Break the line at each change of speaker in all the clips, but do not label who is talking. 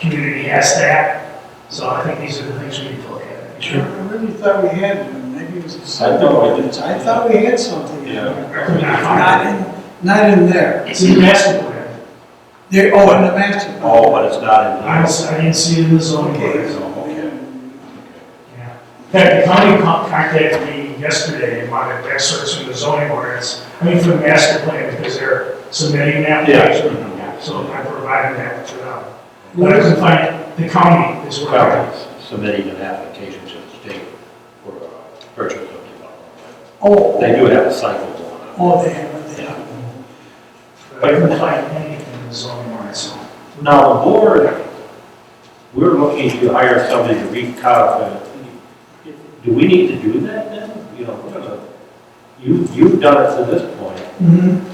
community has that. So I think these are the things we need to look at.
I really thought we had one, maybe it was. the
I thought we did.
I thought we had something. in
Yeah.
there. Not in, not in there.
It's in the master plan.
There, oh, in the master. plan.
Oh, but it's not in
I
here.
don't, I didn't see it in the zoning board.
Okay.
Yeah. In fact, the county con- contacted me yesterday and wanted excerpts from the zoning ordinance, I mean, from the master plan, because they're submitting an application. Yeah, So I provided that to them. What I can find, the county is where I
Well, Submitting an application to the state for a purchase of development.
Oh,
They do have a cycle going on.
oh, they have, it there.
Yeah.
I couldn't find anything in the zoning ordinance.
Now, the board, we're looking to hire somebody to recodify. Do we need to do that then? You know, we're gonna, you, you've done it to this point.
Mhm.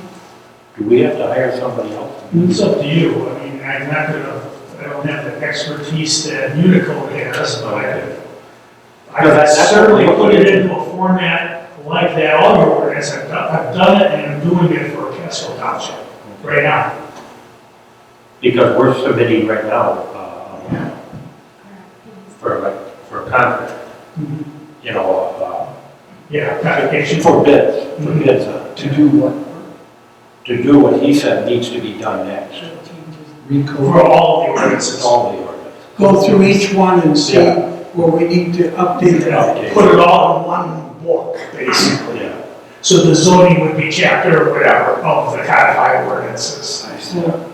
Do we have to hire somebody else?
It's up to you, I mean, I'm not gonna, I don't have the expertise that Unico has, but I could. I
No,
could
that's- that's
certainly
what
put
we-
it into a format like that, all your ordinance, I've done, I've done it and I'm doing it for Casco Township, right now.
Because we're submitting right now, uh, for like, for a contract, you know,
Yeah,
uh,
application for,
for bids, for bids. uh,
To do what?
To do what he said needs to be done next,
for
Recode.
all the ordinances,
all the ordinance.
Go through each one and see
Yeah.
where we need to update it.
Update.
put it all in one book, basically.
Yeah.
So the zoning would be chapter or whatever of the codified ordinances.
So,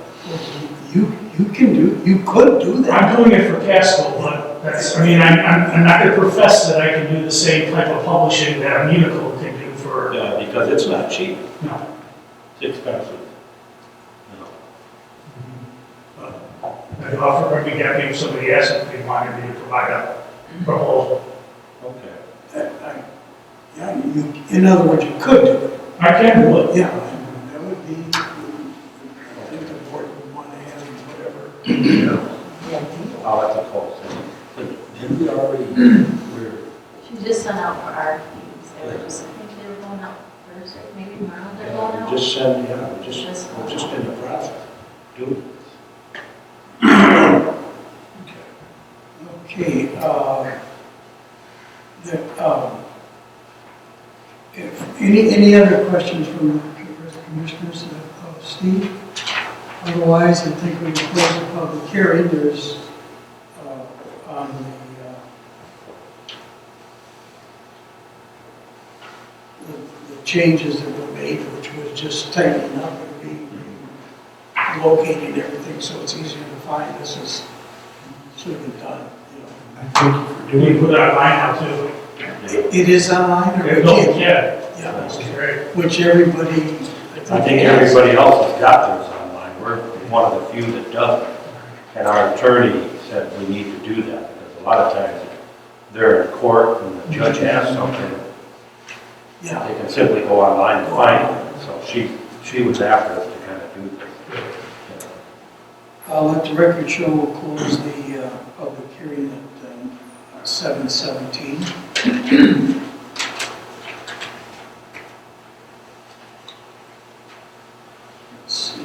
You, you can do, you could do that.
I'm doing it for Casco, but that's, I mean, I'm, I'm, I'm not gonna profess that I can do the same type of publishing that Unico can do for,
Yeah, because it's not cheap,
no.
it's expensive. You know.
I'd offer, I'd be happy if somebody asked if they wanted me to provide a proposal.
Okay.
I- I- Yeah, you, in other words, you could do it.
I can do it.
Yeah, that would be, I think the board would want to have whatever.
I'll have to call someone. Did we already, we're,
She just sent out for RFPs, they were just, I think they were going out Thursday, maybe tomorrow they're going
yeah,
out.
we just said, yeah, we just,
Just-
we're just in the process. Do
Okay, uh, the, um, if, any, any other questions from the commissioners uh, of- of Steve? Otherwise, I think we can close the public hearing, there's, uh, on the, uh, the- the changes that were made, which was just tightening up and re- locating everything, so it's easier to find, this is, should have been done, you know.
Do we put that line out too?
it.
It is online, or
If
it
no,
is,
yeah,
yeah,
that's great.
which everybody.
I think everybody else has got theirs online, we're one of the few that doesn't. And our attorney said we need to do that, because a lot of times they're in court and the judge asks something,
Yeah,
they can simply go online and find it. So she, she was after us to kind of do this.
I'll let the record show we'll close the uh, public hearing at um, seven seventeen. Let's see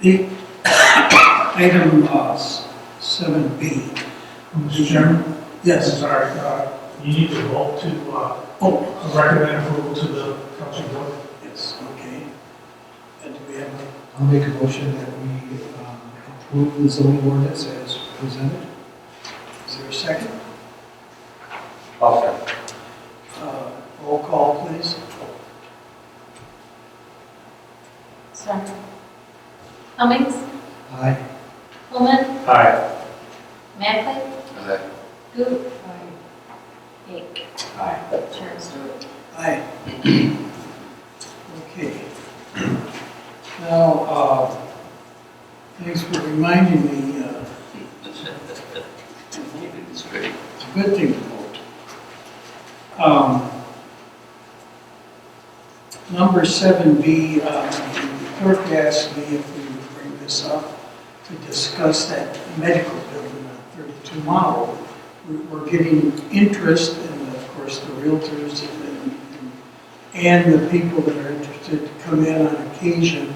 here. The item uh, seven B,
Mr. Chairman?
yes,
Sorry, uh, you need to vote to, uh,
oh,
recommend approval to the council board.
yes, okay. And do we have a
I'll make a motion that we um, approve the zoning ordinance as presented.
Is there a second?
Okay.
Uh, Roll call, please.
Sorry. Cummings,
Aye.
Pullman,
Aye.
Mackley. Goop. Aye. Aye. Chair Stewart.
Aye. Okay. Now, uh, thanks for reminding me, uh,
It's great.
it's a good thing to vote. Um, Number seven B, uh, clerk asked me if we would bring this up to discuss that medical building on thirty-two mile. We're- We're getting interest, and of course, the realtors and- and and the people that are interested to come in on occasion